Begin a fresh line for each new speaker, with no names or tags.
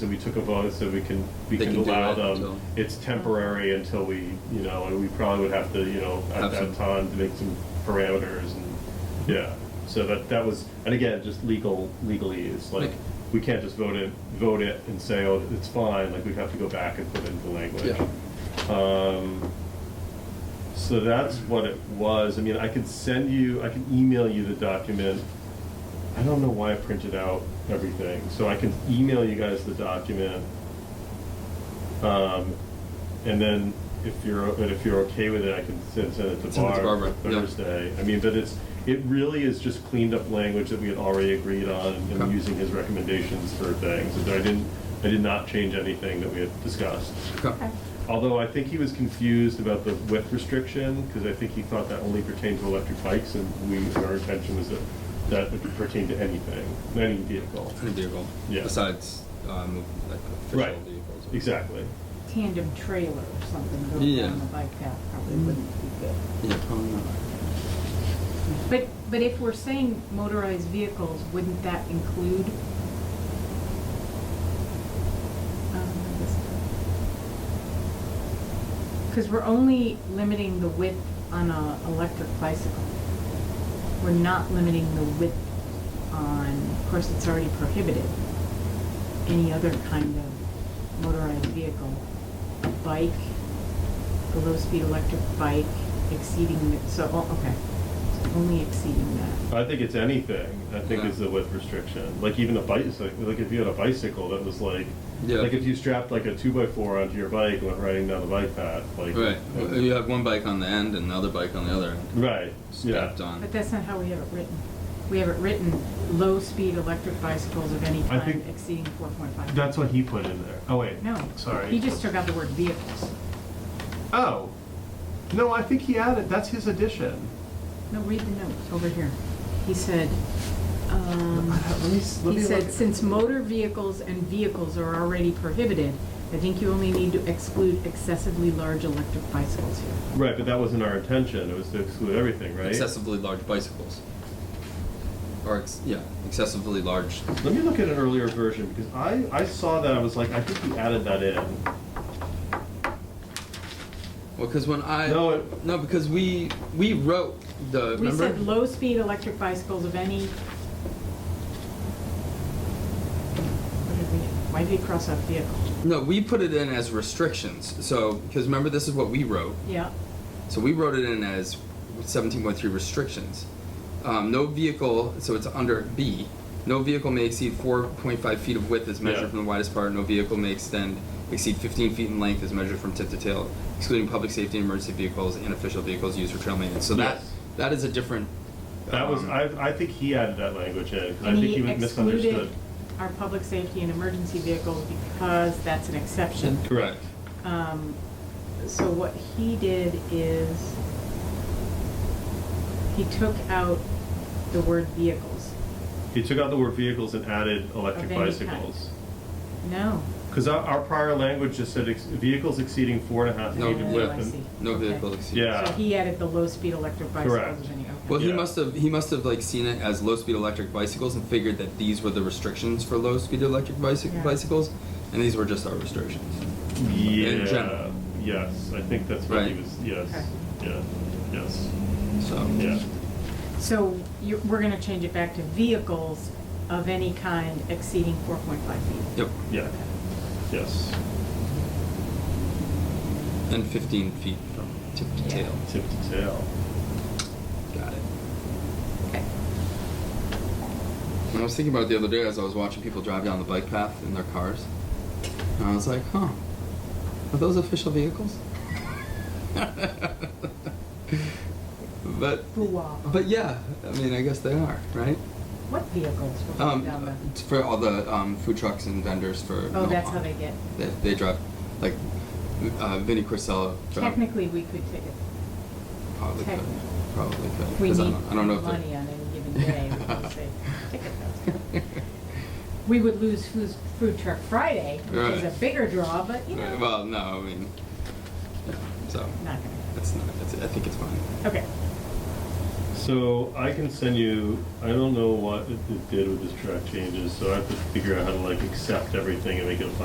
So we took a vote, so we can, we
They
can
can do
allow
it until-
them, it's temporary until we, you know, and we probably would have to, you know, at
Have
that
some-
time to make some parameters and, yeah. So that, that was, and again, just legal, legally, it's like,
Like-
we can't just vote it, vote it and say, oh, it's fine, like, we'd have to go back and put in the language. Um, so that's what it was. I mean, I could send you, I can email you the document. I don't know why I printed out everything, so I can email you guys the document. Um, and then if you're, but if you're okay with it, I can send, send it to
Send it to
Barb
Barbara, yeah.
Thursday. I mean, but it's, it really is just cleaned up language that we had already agreed on and
Okay.
using his recommendations for things. But I didn't, I did not change anything that we had discussed.
Okay.
Although I think he was confused about the width restriction, because I think he thought that only pertained to electric bikes, and we, our intention was that that would pertain to anything, any vehicle.
Any vehicle.
Yeah.
Besides, um, like
Right,
official vehicles.
exactly.
tandem trailer or something going
Yeah.
down the bike path probably wouldn't be good.
Yeah, probably not.
But, but if we're saying motorized vehicles, wouldn't that include? Because we're only limiting the width on a electric bicycle. We're not limiting the width on, of course, it's already prohibited, any other kind of motorized vehicle. A bike, a low-speed electric bike exceeding, the- so, oh, okay, So only exceeding that.
I think it's anything, I think
Yeah.
is the width restriction. Like even a bicycle, like if you had a bicycle that was like,
Yeah.
like if you strapped like a two by four onto your bike and went riding down the bike path, like.
Right. Well, You have one bike on the end and another bike on the other end.
Right, yeah.
Strapped on.
But that's not how we have it written. We have it written, low-speed electric bicycles of any
I
kind
think-
exceeding four point five.
That's what he put in there. Oh, wait.
No.
Sorry.
He just took out the word vehicles.
Oh. No, I think he added, that's his addition.
No, read the note over here. He said, um,
Let me s- let
he
me
said,
look.
since motor vehicles and vehicles are already prohibited, I think you only need to exclude excessively large electric bicycles here.
Right, but that wasn't our intention. It was to exclude everything, right?
Excessively large bicycles. Or, ex- yeah, excessively large.
Let me look at an earlier version because I, I saw that. I was like, I think he added that in.
Well, because when I.
No, it-
No, because we, we wrote the,
We
remember?
said low-speed electric bicycles of any. What did we, why did he cross out vehicle?
No, we put it in as restrictions. So, because remember, this is what we wrote.
Yeah,
So we wrote it in as 17.3 restrictions. Um, no vehicle, so it's under B. No vehicle may exceed 4.5 feet of width as measured
Yeah.
from the widest part. No vehicle may extend exceed 15 feet in length as measured from tip to tail, excluding public safety, emergency vehicles, and official vehicles used for trail maintenance. So that
Yes.
that is a different.
That was
um,
I, I think he added that language in because I
and
think
he
he was misunderstood.
excluded our public safety and emergency vehicles because that's an exception.
correct.
Um, so what he did is, he took out the word vehicles.
He took out the word vehicles and added electric
Of any
bicycles.
No.
Because our, our prior language just said ex- vehicles exceeding four and a half
No,
feet in
yeah.
width.
I
and-
see.
No
Okay.
vehicle exceeds.
Yeah.
So he added the low-speed electric
Correct.
bicycles of any, okay.
Well, he
Yeah.
must have he must have like seen it as low speed electric bicycles and figured that these were the restrictions for low speed electric bicyc-
Yeah.
bicycles, and these were just our restrictions.
yeah.
general.
Yes, I think that's what he
Right. Um,
was. Yes.
Okay.
Yeah. Yes.
So
Yeah.
So you we're gonna change it back to vehicles of any kind exceeding four point five feet.
Yep,
Yeah. Yes.
and 15 feet from tip to
Yeah.
tail.
Tip to tail.
Got it.
Okay.
And I was thinking about it the other day as I was watching people drive down the bike path in their cars, and I was like, huh, are those official vehicles? but
Boo-wah.
but yeah, I mean I guess they are, right?
uh, What vehicles were going
Um,
down the?
it's for all the um, food trucks and vendors for.
Oh,
Milwaukee.
that's how they get.
They, they drive, like, uh, Vinnie Crisello. drove-
Technically, we could take it.
Probably could.
technically.
Probably could.
If we
'cause I
need
don't, I don't know if they-
money on any given day, we could say, ticket those. We would lose Food, food Truck Friday, which is
Right.
a bigger draw, but you know,
Uh,
not
Well, no, I mean, yeah, so
gonna.
it's not. It's, I think it's fine.
Okay.
So I can send you, I don't know what it it did with this track changes, so I have to figure out how to like accept everything and make it a file